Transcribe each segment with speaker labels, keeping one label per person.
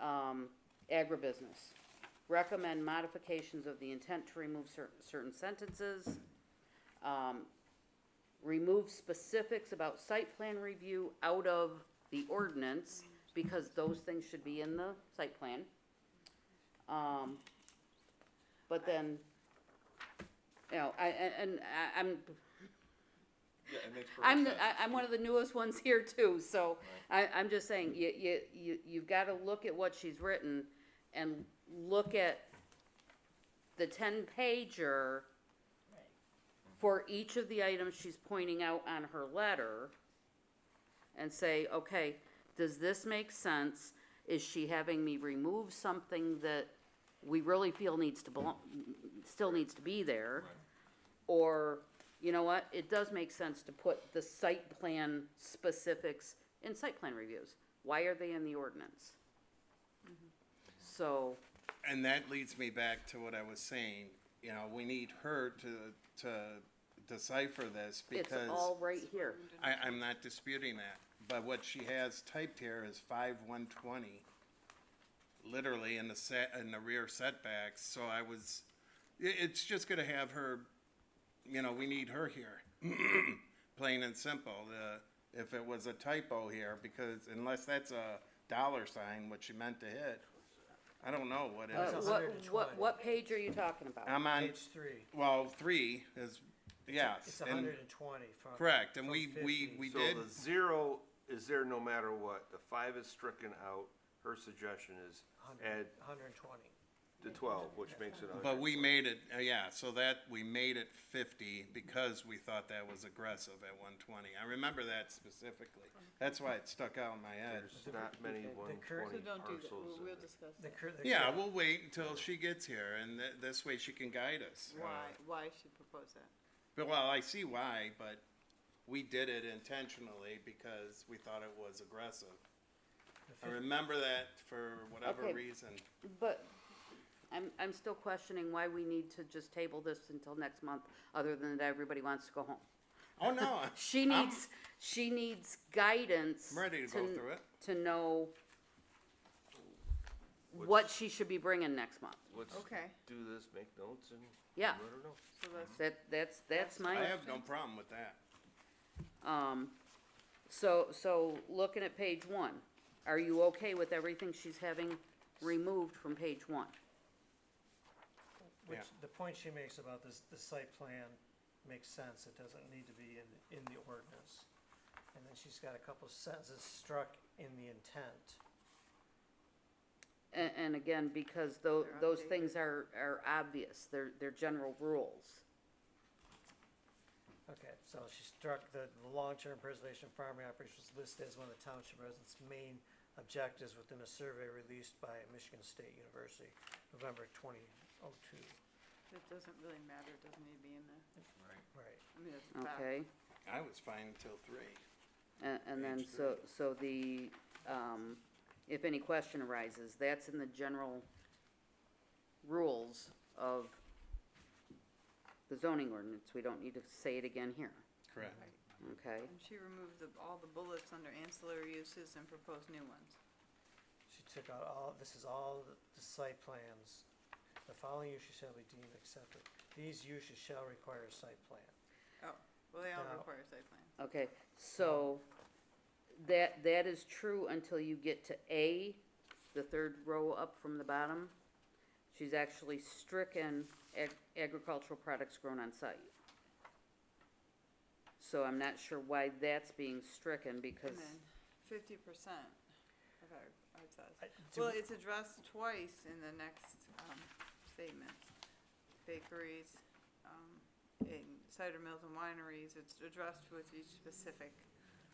Speaker 1: um, agribusiness. Recommend modifications of the intent to remove cer- certain sentences. Um, remove specifics about site plan review out of the ordinance, because those things should be in the site plan. Um, but then, you know, I, and, and I, I'm,
Speaker 2: Yeah, it makes perfect
Speaker 1: I'm, the-
Speaker 2: sense.
Speaker 1: I, I'm one of the newest ones here too, so I, I'm just saying, you, you, you, you've gotta look at what she's written and look at the ten pager for each of the items she's pointing out on her letter and say, okay, does this make sense? Is she having me remove something that we really feel needs to belong, still needs to be there? Or, you know what, it does make sense to put the site plan specifics in site plan reviews. Why are they in the ordinance? So,
Speaker 3: and that leads me back to what I was saying. You know, we need her to to decipher this
Speaker 1: it's
Speaker 3: because
Speaker 1: all right here.
Speaker 3: I, I'm not disputing that. But what she has typed here is five one twenty, literally in the set in the rear setbacks. So I was, i- it's just gonna have her, you know, we need her here, plain and simple. The, if it was a typo here, because unless that's a dollar sign, what she meant to hit, I don't know what it
Speaker 1: Uh,
Speaker 3: is.
Speaker 1: What, what,
Speaker 4: 120.
Speaker 1: what page are you talking about?
Speaker 3: I'm on,
Speaker 4: Page three.
Speaker 3: well, three is, yes.
Speaker 4: It's
Speaker 3: and-
Speaker 4: hundred and twenty from.
Speaker 3: Correct, and
Speaker 4: from
Speaker 3: we, we,
Speaker 4: 50.
Speaker 3: we
Speaker 2: So
Speaker 3: did,
Speaker 2: the zero is there no matter what, the five is stricken out, her suggestion is add
Speaker 4: Hundred, hundred and twenty.
Speaker 2: the twelve, which makes it a
Speaker 3: but
Speaker 2: hundred.
Speaker 3: we made it, uh, yeah, so that, we made it fifty because we thought that was aggressive at one twenty. I remember that specifically. That's why it stuck out in my head.
Speaker 2: There's not many
Speaker 4: the
Speaker 2: one
Speaker 4: cur-
Speaker 2: twenty
Speaker 5: So don't do that,
Speaker 2: parcels
Speaker 5: we'll,
Speaker 2: in
Speaker 5: we'll
Speaker 2: it.
Speaker 5: discuss
Speaker 4: The cur- the
Speaker 3: Yeah,
Speaker 4: cur-
Speaker 3: we'll wait until she gets here and th- this way she can guide us. Uh,
Speaker 5: why, why she proposed that.
Speaker 3: But, well, I see why, but we did it intentionally because we thought it was aggressive. I remember that for whatever
Speaker 1: Okay.
Speaker 3: reason.
Speaker 1: But I'm, I'm still questioning why we need to just table this until next month, other than that everybody wants to go home.
Speaker 3: Oh, no.
Speaker 1: She
Speaker 3: I'm-
Speaker 1: needs, she needs guidance.
Speaker 3: I'm ready to go through it.
Speaker 1: To know what she should be bringing next month.
Speaker 2: Let's
Speaker 5: Okay.
Speaker 2: do this, make notes and.
Speaker 1: Yeah.
Speaker 2: Let her know.
Speaker 5: So that's,
Speaker 1: That, that's, that's my.
Speaker 3: I have no problem with that.
Speaker 1: Um, so, so looking at page one, are you okay with everything she's having removed from page one?
Speaker 4: Which,
Speaker 3: yeah.
Speaker 4: the point she makes about this, the site plan makes sense, it doesn't need to be in, in the ordinance. And then she's got a couple sentences struck in the intent.
Speaker 1: And, and again, because tho-
Speaker 5: They're
Speaker 1: those
Speaker 5: updated.
Speaker 1: things are, are obvious, they're, they're general rules.
Speaker 4: Okay, so she struck the the long-term preservation of farming operations listed as one of the township residents' main objectives within a survey released by Michigan State University, November twenty oh two.
Speaker 5: it doesn't really matter, it doesn't need to be in there.
Speaker 4: Right.
Speaker 5: I mean, that's a fact.
Speaker 1: Okay,
Speaker 3: I was fine until three.
Speaker 1: and, and then
Speaker 3: Page
Speaker 1: so, so the, um, if any question arises, that's in the general rules of the zoning ordinance, we don't need to say it again here,
Speaker 3: Correct.
Speaker 1: okay?
Speaker 5: And she removed the, all the bullets under ancillary uses and proposed new ones.
Speaker 4: She took out all, this is all the- the site plans. The following uses shall be deemed accepted. These uses shall require a site plan.
Speaker 5: Oh, well, they all
Speaker 4: Now-
Speaker 5: require site plan.
Speaker 1: Okay, so that, that is true until you get to A, the third row up from the bottom. She's actually stricken ag- agricultural products grown on site. So I'm not sure why that's being stricken because,
Speaker 5: And then fifty percent of our, our size.
Speaker 4: I- do
Speaker 5: Well,
Speaker 4: we-
Speaker 5: it's addressed twice in the next, um, statement. Bakeries, um, in cider mills and wineries, it's addressed with each specific.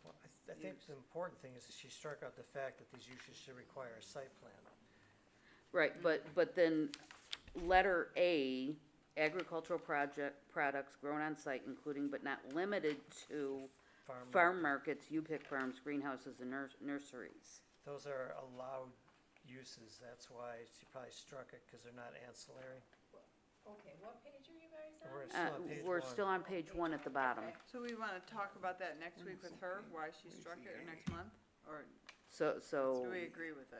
Speaker 4: Well, I, th- I think
Speaker 5: Use.
Speaker 4: the important thing is that she struck out the fact that these uses should require a site plan.
Speaker 1: right, but, but then letter A, agricultural project, products grown on site including but not limited to
Speaker 4: Farm-
Speaker 1: farm markets, U-Pick farms, greenhouses and nurs- nurseries.
Speaker 4: Those are allowed uses, that's why she probably struck it, because they're not ancillary.
Speaker 6: Okay, what page are you guys
Speaker 4: We're
Speaker 6: on?
Speaker 4: still
Speaker 1: Uh,
Speaker 4: on page
Speaker 1: we're
Speaker 4: one.
Speaker 1: still on page one at the bottom.
Speaker 5: So we wanna talk about that next week with her, why she struck it, or next month, or
Speaker 1: So, so.
Speaker 5: do we agree with it?